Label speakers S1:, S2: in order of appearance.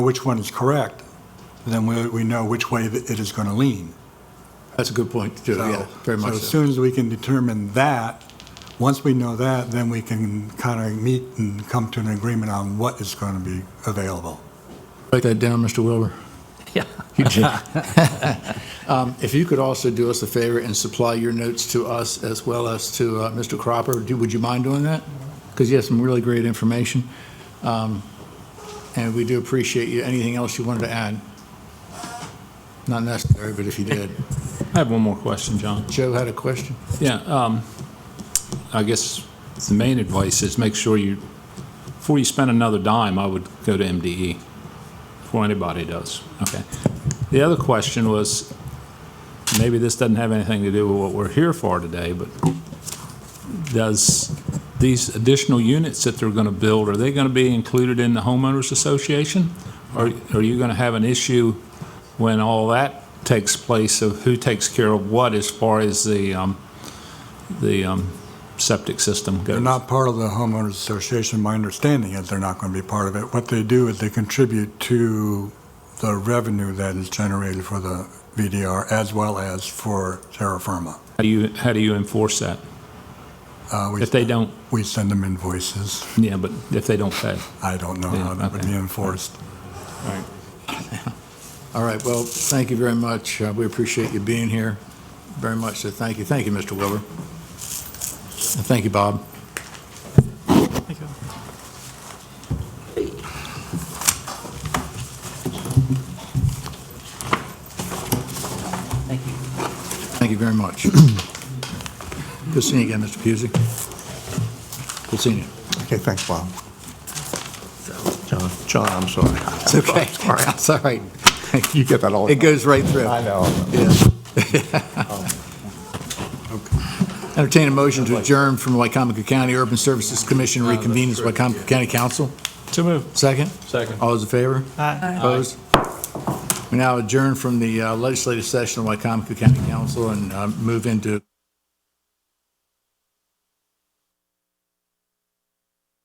S1: which one is correct, then we, we know which way that it is going to lean.
S2: That's a good point, too, yeah,
S1: So-
S2: very much
S1: So as
S2: so.
S1: soon as we can determine that, once we know that, then we can kind of meet and come to an agreement on what is going to be available.
S2: Write that down, Mr. Wilbur.
S3: Yeah.
S2: You did. Um, If you could also do us a favor and supply your notes to us as well as to uh, Mr. Cropper, do- would you mind doing that? Because you have some really great information, Um, and we do appreciate you. Anything else you wanted to add? Not necessary, but if you did.
S4: I have one more question, John.
S2: Joe had a question?
S4: Yeah, um, I guess the main advice is make sure you, before you spend another dime, I would go to MDE, before anybody does. Okay. The other question was, maybe this doesn't have anything to do with what we're here for today, but does these additional units that they're going to build, are they going to be included in the homeowners association? Or are you going to have an issue when all that takes place of who takes care of what as far as the, um, the um, septic system
S1: They're
S4: goes?
S1: not part of the homeowners association. My understanding is they're not going to be part of it. What they do is they contribute to the revenue that is generated for the VDR as well as for terra firma.
S4: How do you, how do you enforce that?
S1: Uh, we-
S4: If they don't,
S1: We send them invoices.
S4: yeah, but if they don't pay?
S1: I don't know how that would be
S4: Yeah, okay.
S1: enforced.
S2: All right, well, thank you very much. Uh, We appreciate you being here very much, so thank you. Thank you, Mr. Wilbur. And thank you, Bob.
S3: Thank you.
S2: Thank you very much. Good seeing you again, Mr. Pusey. Good seeing you.
S5: Okay, thanks, Bob. John, John, I'm sorry.
S2: It's okay.
S5: All right.
S2: It's all right.
S5: You get that all the
S2: It
S5: time.
S2: goes right through.
S5: I know.
S2: Yeah. Um, Entertain a motion to adjourn from Wycomico County Urban Services Commission reconvenes as Wycomico County Council.
S4: To move.
S2: Second?
S4: Second.
S2: All those in favor?
S3: Aye.
S2: Opposed? We now adjourn from the uh, legislative session of Wycomico County Council and uh, move into